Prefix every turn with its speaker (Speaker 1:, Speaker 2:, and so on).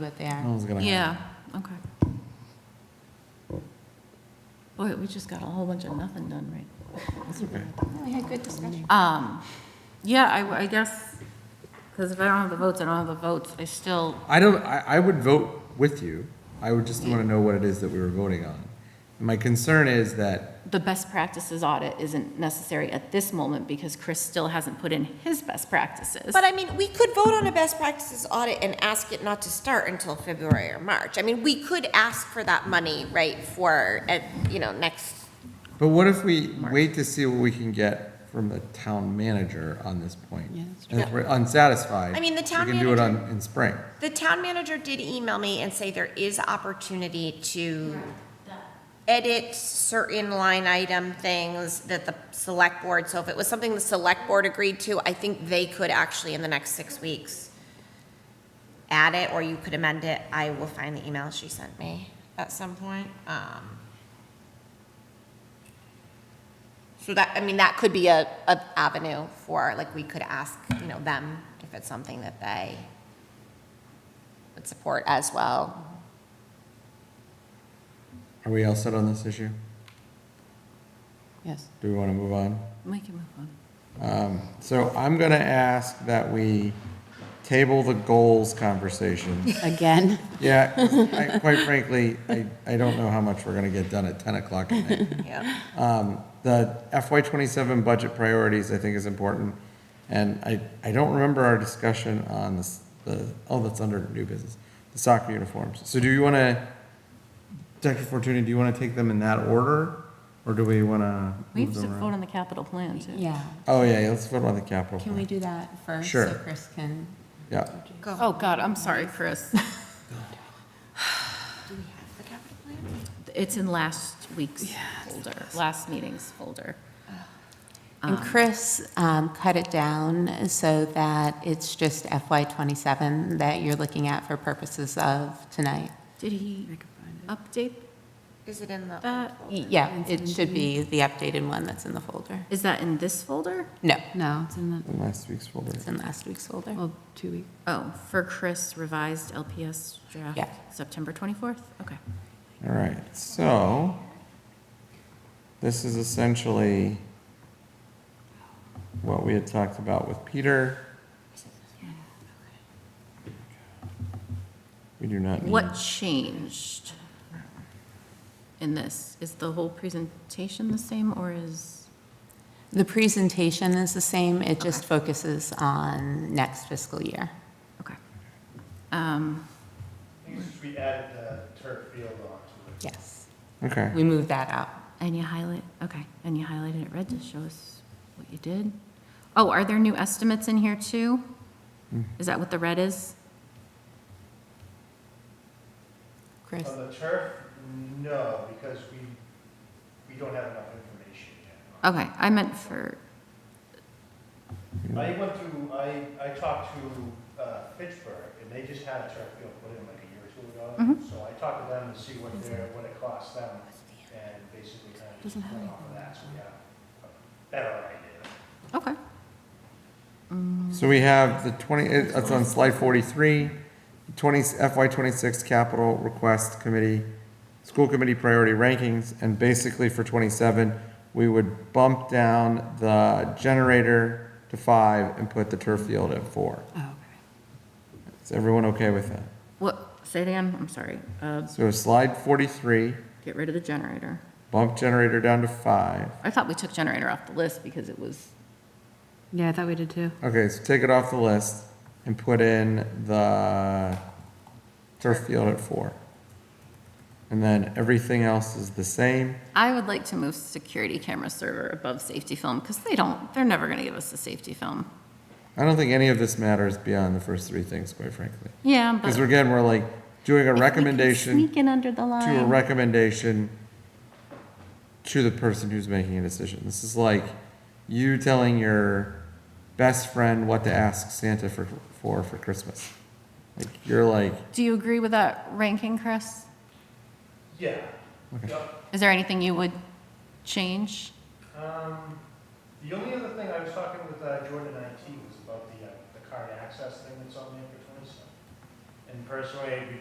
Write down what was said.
Speaker 1: that they are.
Speaker 2: No one's gonna
Speaker 3: Yeah,
Speaker 2: hire
Speaker 3: okay. Boy, we just got a whole bunch of nothing done, right?
Speaker 1: Yeah, We had good discussion.
Speaker 3: Um, yeah, I, I guess, because if I don't have the votes, I don't have the votes, I still,
Speaker 2: them. I don't, I, I would vote with you. I would just want to know what it is that we were voting on. And my concern is that,
Speaker 3: the best practices audit isn't necessary at this moment because Chris still hasn't put in his best practices.
Speaker 4: But I mean, we could vote on a best practices audit and ask it not to start until February or March. I mean, we could ask for that money, right, for, at, you know, next,
Speaker 2: but what if we wait to see what we can get from the town manager on this point?
Speaker 1: Yeah, that's
Speaker 2: And if we're unsatisfied.
Speaker 4: I mean, the town
Speaker 2: We can do it on, in spring.
Speaker 4: the town manager did email me and say there is opportunity to edit certain line item things that the select board, so if it was something the select board agreed to, I think they could actually in the next six weeks add it, or you could amend it. I will find the email she sent me at some point. Um, So that, I mean, that could be a, a avenue for, like, we could ask, you know, them if it's something that they would support as well.
Speaker 2: Are we all set on this issue?
Speaker 1: Yes.
Speaker 2: Do we want to move on?
Speaker 3: We can move on.
Speaker 2: Um, So I'm going to ask that we table the goals conversation.
Speaker 1: Again,
Speaker 2: Yeah, 'cause I- quite frankly, I, I don't know how much we're going to get done at 10 o'clock at night.
Speaker 4: Yeah.
Speaker 2: Um, The FY '27 budget priorities, I think, is important. And I, I don't remember our discussion on this, the, oh, that's under new business, the soccer uniforms. So do you want to, Dr. Fortuna, do you want to take them in that order? Or do we want to
Speaker 3: We
Speaker 2: move
Speaker 3: have to
Speaker 2: them
Speaker 3: vote
Speaker 2: around?
Speaker 3: on the capital plan, too.
Speaker 1: yeah.
Speaker 2: Oh, yeah, yeah, let's vote on the capital
Speaker 1: Can we do
Speaker 2: plan.
Speaker 1: that first?
Speaker 2: Sure.
Speaker 1: So Chris can,
Speaker 2: Yeah,
Speaker 3: Oh, God, I'm sorry, Chris. It's in last week's folder, last meeting's folder.
Speaker 1: and Chris um, cut it down so that it's just FY '27 that you're looking at for purposes of tonight.
Speaker 3: Did he update
Speaker 4: Is it in the,
Speaker 3: that?
Speaker 1: Yeah, it should be the updated one that's in the folder.
Speaker 3: Is that in this folder?
Speaker 1: No,
Speaker 5: No, it's in the,
Speaker 2: in last week's folder.
Speaker 1: it's in last week's folder.
Speaker 5: well, two weeks.
Speaker 3: Oh, for Chris revised LPS
Speaker 1: Yeah.
Speaker 3: draft, September 24th? Okay.
Speaker 2: All right, so this is essentially what we had talked about with Peter. We do not need.
Speaker 3: What changed in this? Is the whole presentation the same or is?
Speaker 1: The presentation is the same, it just focuses on next fiscal year.
Speaker 3: Okay. Um,
Speaker 6: We added the turf field onto it.
Speaker 1: Yes,
Speaker 2: Okay,
Speaker 1: we moved that out.
Speaker 3: And you highlight, okay, and you highlighted it red to show us what you did. Oh, are there new estimates in here too? Is that what the red is?
Speaker 1: Chris?
Speaker 6: On the turf, no, because we, we don't have enough information yet.
Speaker 3: Okay, I meant for,
Speaker 6: I went through, I, I talked to uh, Fitchburg, and they just had a turf field put in like a year or two
Speaker 5: Mm-hmm.
Speaker 6: ago. So I talked to them to see what their, what it cost them, and basically kind of just
Speaker 5: Doesn't have
Speaker 6: went off of that, so we have a better idea.
Speaker 3: okay.
Speaker 2: so we have the 20, it- it's on slide 43, 20, FY 26 capital request committee, school committee priority rankings, and basically for 27, we would bump down the generator to five and put the turf field at four.
Speaker 5: Oh, okay.
Speaker 2: Is everyone okay with that?
Speaker 3: What, say it again, I'm sorry. Uh,
Speaker 2: So slide 43,
Speaker 3: Get rid of the generator.
Speaker 2: bump generator down to five.
Speaker 3: I thought we took generator off the list because it was,
Speaker 5: Yeah, I thought we did too.
Speaker 2: Okay, so take it off the list and put in the turf field at four. And then everything else is the same.
Speaker 3: I would like to move security camera server above safety film because they don't, they're never going to give us a safety film.
Speaker 2: I don't think any of this matters beyond the first three things, quite frankly.
Speaker 3: Yeah, but.
Speaker 2: Because again, we're like doing a
Speaker 3: if we can
Speaker 2: recommendation
Speaker 3: Sneak in under the line.
Speaker 2: to a recommendation to the person who's making a decision. This is like you telling your best friend what to ask Santa for for, for Christmas. Like you're like,
Speaker 3: Do you agree with that ranking, Chris?
Speaker 6: Yeah.
Speaker 2: Okay.
Speaker 6: Yep.
Speaker 3: Is there anything you would change?
Speaker 6: Um, the only other thing I was talking with uh, Jordan IT was about the, uh, the card access thing that's on there for twenty-seven. And personally, it'd be